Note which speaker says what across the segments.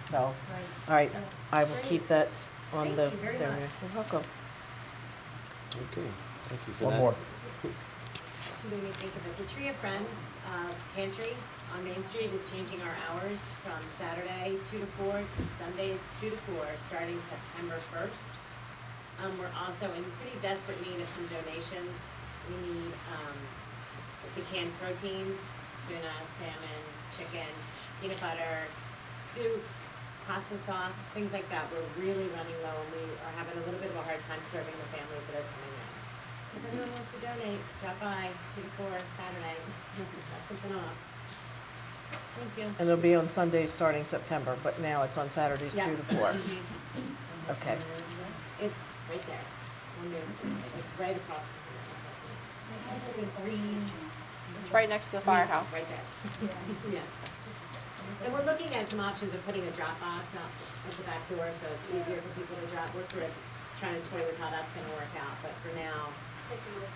Speaker 1: so, all right,
Speaker 2: Uh,
Speaker 1: I will keep that on
Speaker 2: Thank
Speaker 1: the,
Speaker 2: you very
Speaker 1: there,
Speaker 2: much.
Speaker 1: you're welcome.
Speaker 3: Okay, thank you for that.
Speaker 4: One more.
Speaker 2: She made me think of it. The Tree of Friends uh, Pantry on Main Street is changing our hours from Saturday two to four to Sundays two to four, starting September first. Um, we're also in pretty desperate need of some donations. We need, um, the canned proteins, tuna, salmon, chicken, peanut butter, soup, pasta sauce, things like that. We're really running low and we are having a little bit of a hard time serving the families that are coming in. So if anyone wants to donate, drop by two to four Saturday, drop something off. Thank you.
Speaker 1: And it'll be on Sundays starting September, but now it's on Saturdays
Speaker 2: Yeah.
Speaker 1: two to four.
Speaker 2: Mhm.
Speaker 1: Okay.
Speaker 2: It's right there, on Main Street, like right across from here. It's a green.
Speaker 5: It's right next to the firehouse.
Speaker 2: Right there. Yeah. And we're looking at some options of putting a drop box out at the back door, so it's easier for people to drop. We're sort of trying to toy with how that's gonna work out, but for now, it's a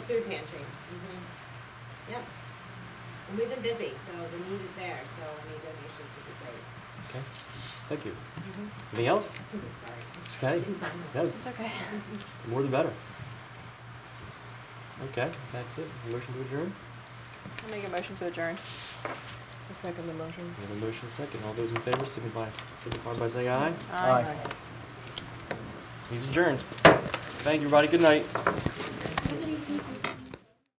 Speaker 2: food pantry.
Speaker 5: Mm-hmm.
Speaker 2: Yep. And we've been busy, so the need is there, so any donations would be great.
Speaker 3: Okay, thank you. Anything else?
Speaker 2: Sorry.
Speaker 3: Okay,
Speaker 2: Inside.
Speaker 3: no,
Speaker 5: It's okay.
Speaker 3: the more the better. Okay, that's it. Motion to adjourn?
Speaker 5: I'll make a motion to adjourn.
Speaker 1: I Second the motion.
Speaker 3: We have a motion second. All those in favor signify, signify by saying aye.
Speaker 5: Aye.
Speaker 3: He's adjourned. Thank you, everybody. Good night.